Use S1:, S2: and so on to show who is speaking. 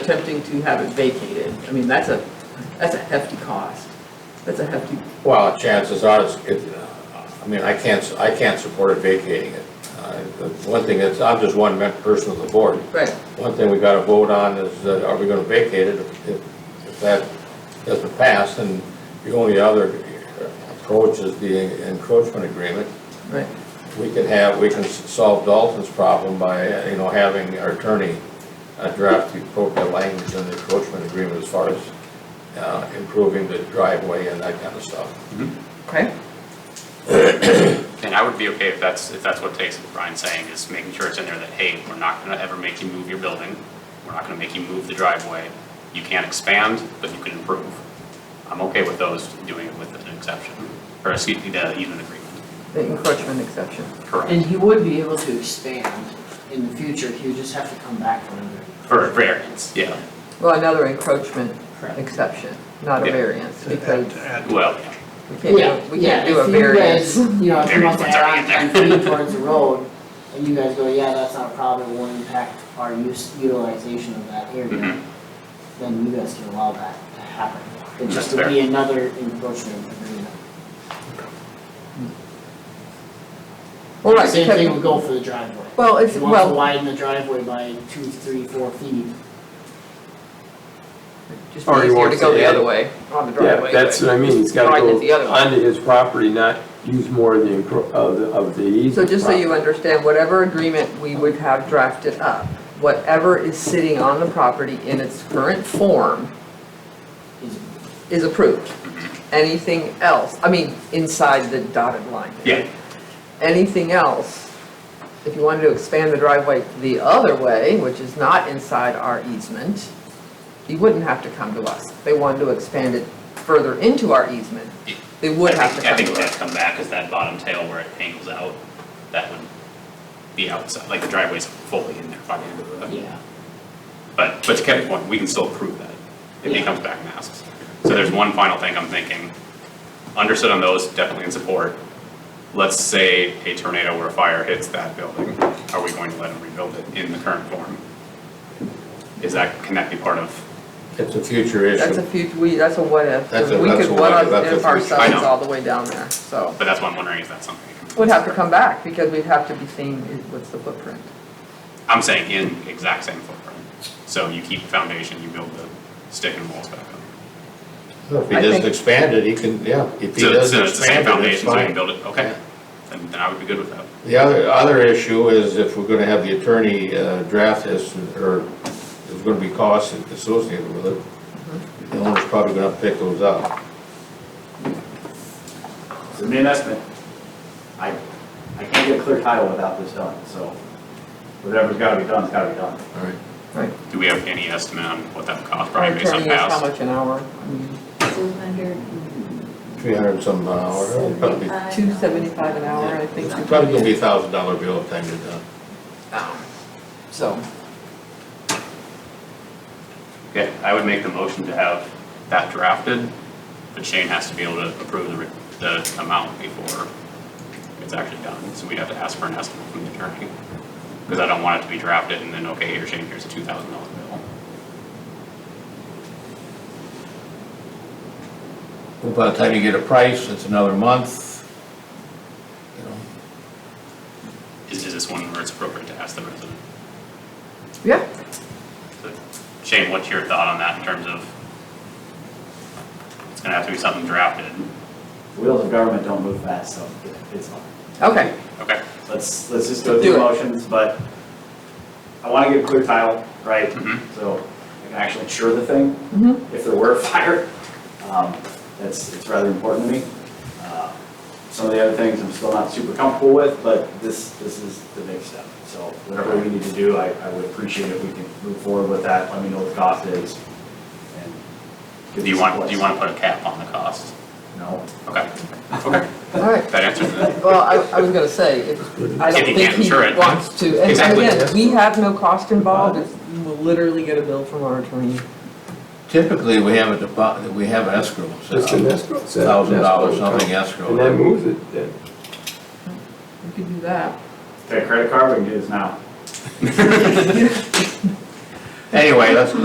S1: attempting to have it vacated. I mean, that's a, that's a hefty cost. That's a hefty,
S2: Well, chances are, it's, it, uh, I mean, I can't, I can't support it vacating it. Uh, the One thing that's, I'm just one mem- person of the board.
S1: right,
S2: One thing we gotta vote on is, uh, are we gonna vacate it? If- If, if that doesn't pass, then the only other approach is the encroachment agreement.
S1: right.
S2: We can have, we can solve Dalton's problem by, uh, you know, having our attorney uh, draft the appropriate language in the encroachment agreement as far as uh, improving the driveway and that kind of stuff.
S1: Okay,
S3: And I would be okay if that's, if that's what takes, what Brian's saying, is making sure it's in there that, hey, we're not gonna ever make you move your building. We're not gonna make you move the driveway. You can't expand, but you can improve. I'm okay with those doing it with an exception, or excuse me, the easement agreement.
S1: the encroachment exception.
S4: And
S3: Correct.
S4: he would be able to expand in the future, he would just have to come back for another.
S3: For variance, yeah.
S1: Well, another encroachment
S4: Correct.
S1: exception, not a
S3: Yeah.
S1: variance, because
S3: Well, yeah.
S1: we can't, do- we can't do a variance.
S4: Yeah, if you guys, you know, if you want to
S3: Variance
S4: add on
S3: already in
S4: ten feet towards the road, and you guys go, yeah, that's not a problem, it won't impact our use, utilization of that
S3: Mhm.
S4: area, then you guys can allow that to happen. It just
S3: That's
S4: would be another encroachment agreement.
S1: Well, right,
S4: Same
S1: because-
S4: thing would go for the driveway.
S1: Well,
S4: If
S1: it's,
S4: you want to
S1: well,
S4: widen the driveway by two, three, four feet,
S1: just
S5: Or
S1: be
S5: you
S1: easier
S5: want
S1: to go
S5: to
S1: the
S5: add-
S1: other way, on the
S5: Yeah,
S1: driveway.
S5: that's
S1: but-
S5: what I mean, he's gotta
S1: Right,
S5: go
S1: it's the other one.
S5: onto his property, not use more of the, encro- of the- of the easement.
S1: So just so you
S5: property.
S1: understand, whatever agreement we would have drafted up, whatever is sitting on the property in its current form
S4: is
S1: is approved. Anything else, I mean, inside the dotted line.
S3: Yeah.
S1: Anything else, if you wanted to expand the driveway the other way, which is not inside our easement, you wouldn't have to come to us. They wanted to expand it further into our easement, they would
S3: I
S1: have to
S3: think,
S1: come
S3: I think
S1: to
S3: it
S1: us.
S3: would have to come back, cause that bottom tail where it angles out, that would be outside, like the driveway's fully in there by the end of the.
S4: Yeah,
S3: But, but to Kevin's point, we can still approve that. It
S4: Yeah.
S3: becomes back masks. So there's one final thing I'm thinking. Understood on those, definitely in support. Let's say a tornado or a fire hits that building, are we going to let them rebuild it in the current form? Is that, can that be part of,
S2: It's a future
S1: That's a
S2: issue.
S1: few, we, that's a what if,
S2: That's a-
S1: we
S2: that's
S1: could
S2: a
S1: what
S2: what if, that's a
S1: if
S2: future-
S3: I
S1: ourselves
S3: know.
S1: all the way down there, so.
S3: but that's what I'm wondering, is that something? that can-
S1: We'd have to come back, because we'd have to be seeing what's the footprint.
S3: I'm saying in exact same footprint. So you keep foundation, you build the stick and walls back up.
S2: If he
S1: I
S2: doesn't
S1: think-
S2: expand it, he can, yeah, if he
S3: So it's
S2: doesn't
S3: so it's the same
S2: expand it, it's
S3: foundation, so you can
S2: fine.
S3: build it, okay. Then, then I would be good with that.
S2: The other, other issue is if we're gonna have the attorney uh, draft this, or there's gonna be costs associated with it,
S1: Mm-hmm.
S2: the owner's probably gonna pick those up.
S6: Submit an estimate. I, I can't get a clear title without this done, so whatever's gotta be done's gotta be done.
S2: All right.
S3: Do we have any estimate on what that would cost,
S1: Our
S3: probably based on
S1: attorney is
S3: past?
S1: how much an hour? I mean,
S7: Two hundred
S2: Three hundred and some an hour, it'll probably, be-
S7: seventy-five.
S1: Two seventy-five an hour, I think.
S2: it's probably gonna be a thousand dollar bill if time you're done.
S1: Um, So,
S3: Okay, I would make the motion to have that drafted, but Shane has to be able to approve the, re- the amount before it's actually done, so we'd have to ask for an estimate from the attorney. Because I don't want it to be drafted and then, okay, here, Shane, here's a two thousand dollar bill.
S2: Well, By the time you get a price, it's another month, you know.
S3: Is, is this one where it's appropriate to ask the resident?
S1: yeah,
S3: So, Shane, what's your thought on that in terms of? It's gonna have to be something drafted,
S6: Wheels of government don't move fast, so it's fine.
S1: okay,
S3: okay,
S6: Let's, let's just go
S1: Do
S6: through
S1: it.
S6: motions, but I wanna get a clear title, right?
S3: Mhm.
S6: So I can actually insure the thing.
S1: Mhm.
S6: If there were a fire, um, that's, it's rather important to me. Uh, Some of the other things I'm still not super comfortable with, but this, this is the big step. So whatever we need to do, I, I would appreciate if we can move forward with that, let me know what the cost is. and
S3: do
S6: get
S3: you
S6: this
S3: want,
S6: in
S3: do you
S6: place.
S3: wanna put a cap on the cost?
S6: No,
S3: Okay, okay,
S1: all right.
S3: that answers it.
S1: Well, I, I was gonna say, if, I don't
S3: If he
S1: think
S3: can't
S1: he
S3: insure it.
S1: wants to, and
S3: Exactly.
S1: again, we have no cost involved, It's- you will literally get a bill from our attorney.
S2: Typically, we have a deposit, we have an escrow,
S5: Just an escrow.
S2: thousand dollars, something
S5: And then
S2: escrow.
S5: move it then.
S1: We could do that.
S6: take a credit card, we can do this now.
S2: Anyway, let's,